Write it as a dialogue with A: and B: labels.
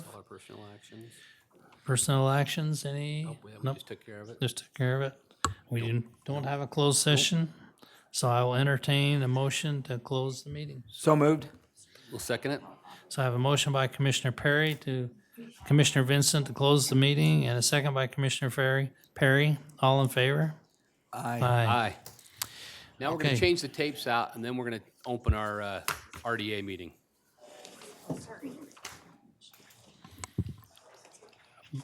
A: personal actions.
B: Personnel actions, any?
A: Nope, Oh, we haven't.
B: Nope,
A: just took care of it.
B: just took care of it. We didn't- don't have a closed session, so I will entertain a motion to close the meeting.
C: So moved.
A: We'll second it.
B: So I have a motion by Commissioner Perry to Commissioner Vincent to close the meeting and a second by Commissioner Ferry, Perry. All in favor?
C: Aye.
B: Aye.
A: Aye. Now we're going
B: Okay.
A: to change the tapes out, and then we're going to open our uh, RDA meeting.